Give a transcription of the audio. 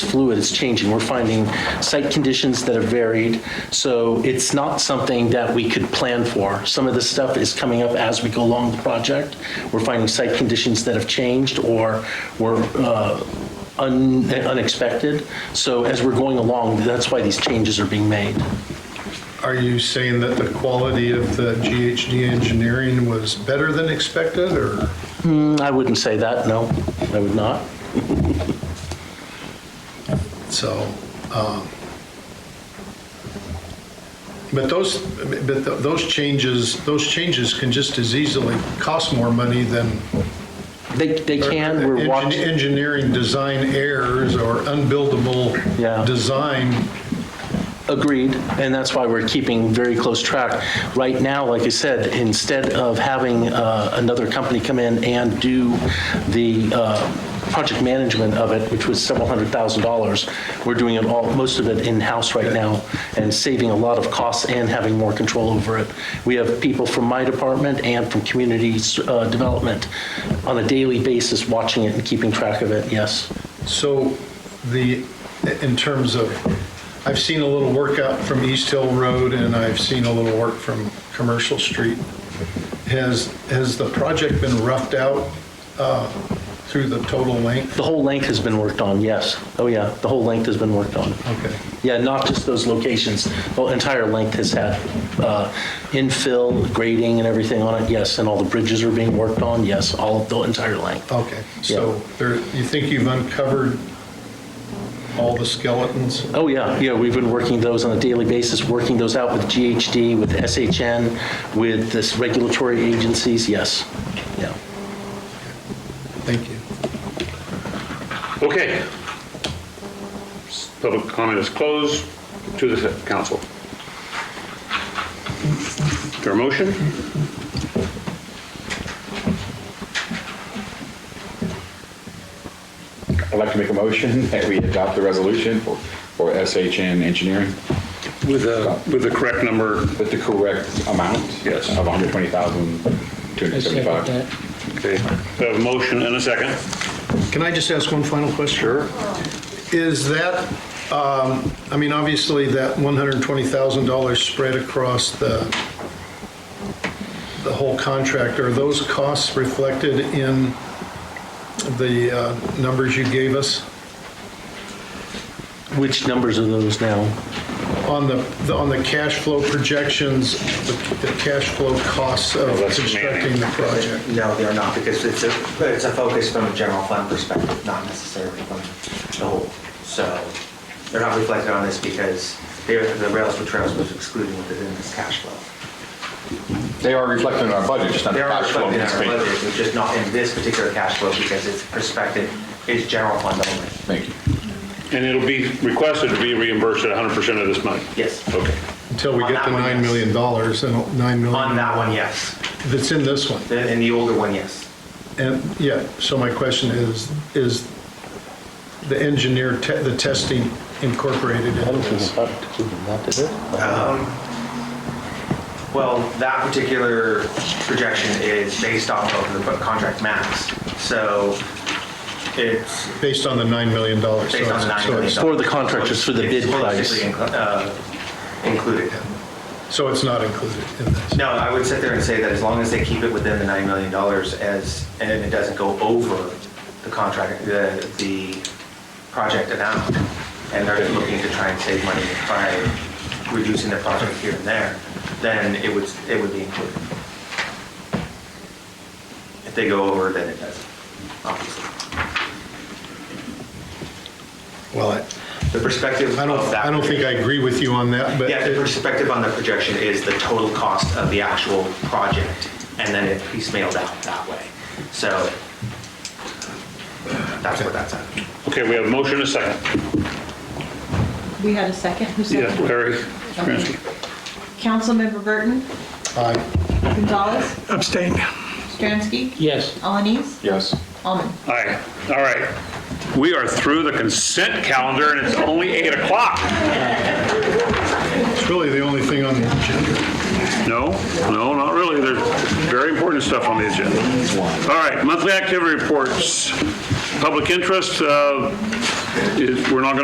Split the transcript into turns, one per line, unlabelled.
fluid, it's changing. We're finding site conditions that have varied, so it's not something that we could plan for. Some of this stuff is coming up as we go along the project. We're finding site conditions that have changed or were uh, un- unexpected. So as we're going along, that's why these changes are being made.
Are you saying that the quality of the GHD engineering was better than expected, or?
Mm, I wouldn't say that, no, I would not.
So, um, but those, but th- those changes, those changes can just as easily cost more money than.
They, they can, we're
Engi-
watching,
Engineering design errors or unbuildable
Yeah.
design.
agreed, and that's why we're keeping very close track. Right now, like I said, instead of having uh, another company come in and do the uh, project management of it, which was several hundred thousand dollars, we're doing it all, most of it in-house right now, and saving a lot of costs and having more control over it. We have people from my department and from community uh, development on a daily basis watching it and keeping track of it, yes.
So the, in terms of, I've seen a little workout from East Hill Road and I've seen a little work from Commercial Street. Has, has the project been roughed out uh, through the total length?
The whole length has been worked on, yes. Oh, yeah, the whole length has been worked on.
Okay.
Yeah, not just those locations, the entire length has had uh, infill, grading and everything on it, yes, and all the bridges are being worked on, yes, all, the entire length.
Okay, so there, you think you've uncovered all the skeletons?
Oh, yeah, yeah, we've been working those on a daily basis, working those out with GHD, with SHN, with this regulatory agencies, yes, yeah.
Thank you.
Okay. Public comment is closed to the council. Your motion?
I'd like to make a motion that we adopt the resolution for, for SHN Engineering
With the, with the correct number,
with the correct amount.
Yes.
Of 120,275.
okay. We have a motion and a second.
Can I just ask one final question? Sure. Is that, um, I mean, obviously, that $120,000 spread across the, the whole contract, are those costs reflected in the uh, numbers you gave us
Which numbers are those now?
on the, on the cash flow projections, the the cash flow costs of
that's
constructing the project?
No, they're not, because it's a, it's a focus from a general fund perspective, not necessarily from the whole. So they're not reflected on this because they're- the rails for trails was excluded within this cash flow.
They are reflected in our budget, just not the
They are
cash flow.
reflected in
needs
our
to be.
budget, it's just not in this particular cash flow because it's perspective, it's general fund only.
Thank you.
And it'll be requested to be reimbursed at 100% of this money?
Yes.
Okay.
Until we
On
get
that
to
one,
$9
yes.
million, and $9 million.
On that one, yes.
That's in this one.
The- In the older one, yes.
And, yeah, so my question is, is the engineer, te- the testing incorporated
I
in
don't think
this?
it's up to that, is it?
Well, that particular projection is based off of the contract max. So it's
Based on the $9 million? so
Based on
it's-
the $9
so
million.
it's-
For the contractors, for the bid
It's
price.
basically inclu- uh, Included.
So it's not included in this?
No, I would sit there and say that as long as they keep it within the $9 million as, and it doesn't go over the contract, the, the project amount, and they're looking to try and save money by reducing their project here and there, then it would, it would be included. If they go over, then it doesn't, obviously.
Well, I
The perspective
I don't,
of that.
I don't think I agree with you on that, but
Yeah, the
it-
perspective on the projection is the total cost of the actual project, and then it piecemealed out that way. So that's where that's at.
Okay, we have a motion and a second.
We had a second, who
Yeah,
seconded?
Larry
Okay.
Kransky.
Councilmember Burton,
I-
Gonzalez,
Abstain.
Stransky,
Yes.
Alanis,
Yes.
Almond.
Aye. All right. We are through the consent calendar, and it's only 8 o'clock.
it's really the only thing on the agenda.
No, no, not really. There's very important stuff on the agenda. All right, monthly activity reports. public interest, uh, is- we're not going to